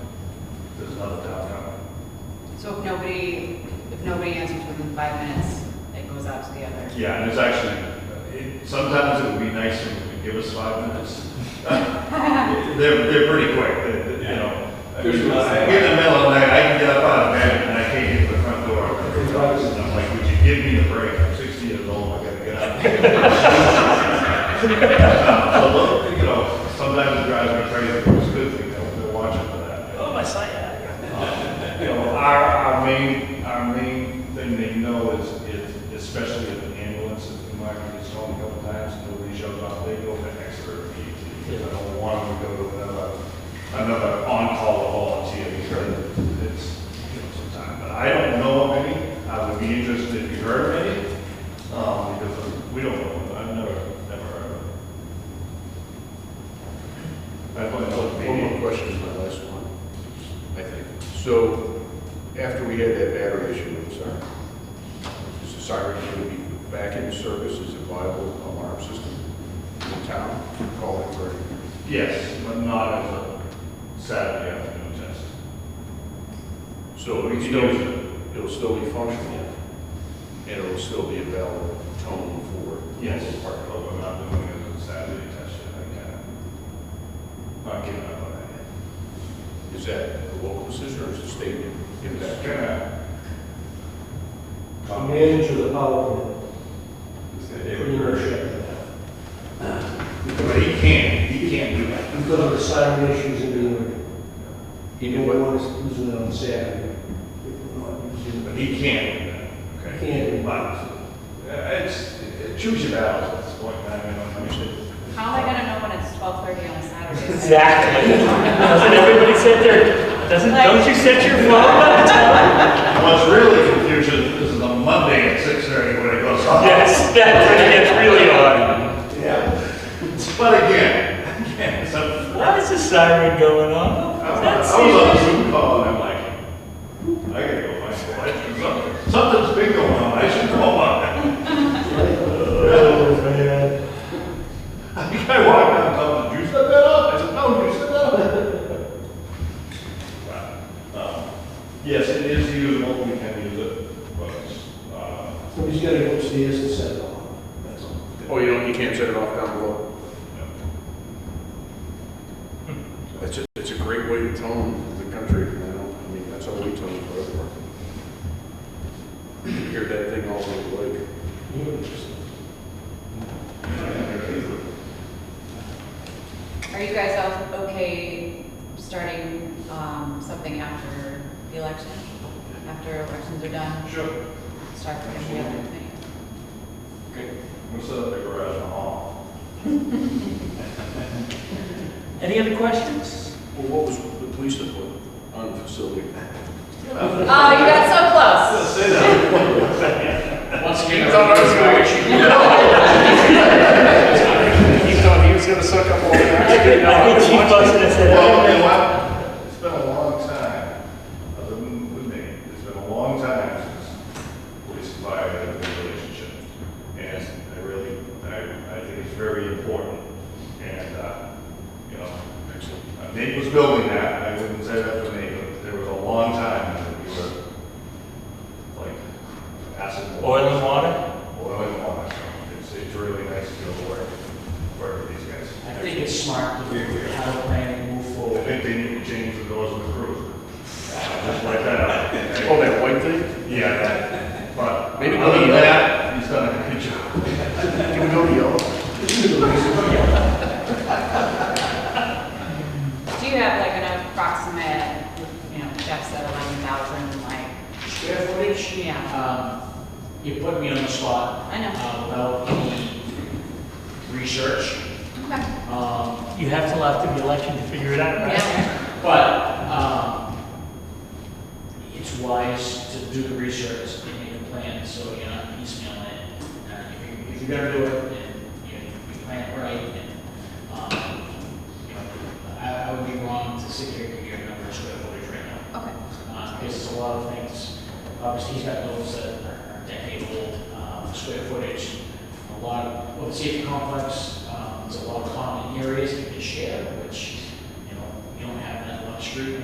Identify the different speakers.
Speaker 1: level downtown.
Speaker 2: So if nobody, if nobody answers within five minutes, it goes out to the other.
Speaker 1: Yeah, and it's actually, it- sometimes it would be nicer if you could give us five minutes. They're, they're pretty quick, they- they- you know. I mean,
Speaker 3: There's no-
Speaker 1: I get in the middle of the night, I can get up out of bed and I can't get to the front door. And I'm like, would you give me a break? I'm sixty years old, I gotta get up. So, look, you know, sometimes it drives me crazy, but it's a good thing, though, they're watching for that.
Speaker 4: Oh, my sciatica.
Speaker 1: You know, our, our main, our main thing they know is, is especially if an ambulance, if the market gets home a couple times, nobody shows up, they go to expert immediately. I don't want them to go to another, another on-call volunteer, because it's, you know, some time. But I don't know of any, I would be interested if you heard of any, um, because we don't know, I've never, never heard of it. I've only looked
Speaker 3: One more
Speaker 1: maybe,
Speaker 3: question, my last one, I think. So, after we had that battery issue with Siren, is the Siren going to be back in service as a viable alarm system in town? Call it for,
Speaker 1: yes, but not as a Saturday afternoon test.
Speaker 3: so
Speaker 1: We
Speaker 3: it's
Speaker 1: can use
Speaker 3: still,
Speaker 1: it.
Speaker 3: it'll still be functional, and it'll still be a valid tone for.
Speaker 1: Yes.
Speaker 3: the park.
Speaker 1: But we're not doing it on Saturday, test yet. I can't. Not giving up on that yet.
Speaker 3: Is that a local decision, or is the state in
Speaker 1: It's
Speaker 3: that?
Speaker 1: gonna.
Speaker 5: The manager of the power plant,
Speaker 1: It
Speaker 5: pretty
Speaker 1: would
Speaker 5: much
Speaker 1: hurt.
Speaker 5: shut down.
Speaker 1: But he can't, he can't do that.
Speaker 5: Because of the siren issues in the area.
Speaker 3: Even what,
Speaker 5: Everyone is using it on Saturday. People are not using
Speaker 1: But he can't do that.
Speaker 5: it. Can't.
Speaker 1: But, uh, it's, it- choose your battles at this point, in time, I don't understand.
Speaker 2: How am I gonna know when it's twelve thirty on a Saturday?
Speaker 4: Exactly. Doesn't everybody sit there, doesn't, don't you set your phone by the time?
Speaker 1: What's really confusing, this is a Monday at six thirty when it goes off.
Speaker 4: Yes, that's when it gets really hard.
Speaker 1: Yeah. But again, again, it's a
Speaker 4: Why is the siren going off?
Speaker 1: I was I was on a Zoom call and I'm like, I gotta go find some lights or something. Something's been going on, I should call on I think I walked out and told them, did you set that up? I said, no, you set that up. Um, Yes, it is usable, we can use it, but, uh,
Speaker 5: Somebody's got to go upstairs and set it off. That's all.
Speaker 3: oh, you don't, you can't set it off down below? It's a, it's a great way to tone the country, you know, I mean, that's how we tone for other part. You hear that thing all over the lake.
Speaker 2: Are you guys all okay starting, um, something after the election? After elections are done,
Speaker 1: sure.
Speaker 2: start putting together things?
Speaker 1: Okay. We'll set up the garage in the hall.
Speaker 4: Any other questions?
Speaker 3: Well, what was the police input on the facility?
Speaker 2: Oh, you got so close.
Speaker 1: Say that.
Speaker 3: Once again, I thought I was gonna issue. He thought he was gonna suck up all the oxygen.
Speaker 4: I think Chief Buck's gonna say
Speaker 1: Well, you know
Speaker 4: that.
Speaker 1: what? It's been a long time, other than with me, it's been a long time since police and fire had a good relationship. And I really, I, I think it's very important. And, uh, you know, uh, Nate was building that, I wouldn't say that for Nate, but there was a long time that we were like acid.
Speaker 4: Oil and water?
Speaker 1: Oil and water, so it's, it's really nice to go to work, work with these guys.
Speaker 6: I think it's smart to have a plan and move
Speaker 1: I
Speaker 6: forward.
Speaker 1: think they need to change the doors on the cruiser. Just like that.
Speaker 3: Oh, that white thing?
Speaker 1: Yeah, that, but
Speaker 3: Maybe
Speaker 1: other than
Speaker 3: they'll-
Speaker 1: that, he's done a good job.
Speaker 3: Can we go to yellow?
Speaker 2: Do you have like an approximate, you know, Jeff said eleven thousand, like,
Speaker 6: Square footage,
Speaker 2: yeah,
Speaker 6: um, you put me on the spot.
Speaker 2: I know.
Speaker 6: uh, Without any research,
Speaker 2: okay,
Speaker 6: um,
Speaker 4: You have till after the election to figure it out, right?
Speaker 2: yeah.
Speaker 6: but, um, it's wise to do the research and make a plan, so you're not piecemealing it. Uh, if you- If you're gonna do it, then you, you plan it right, and, um, you know, I, I would be wrong to sit here and give you a number of square footage right now.
Speaker 2: Okay.
Speaker 6: Uh, Because it's a lot of things, obviously, he's got those that are decade-old, um, square footage, a lot of, well, the safety complex, um, there's a lot of common areas that you can share, which, you know, you don't have that luxury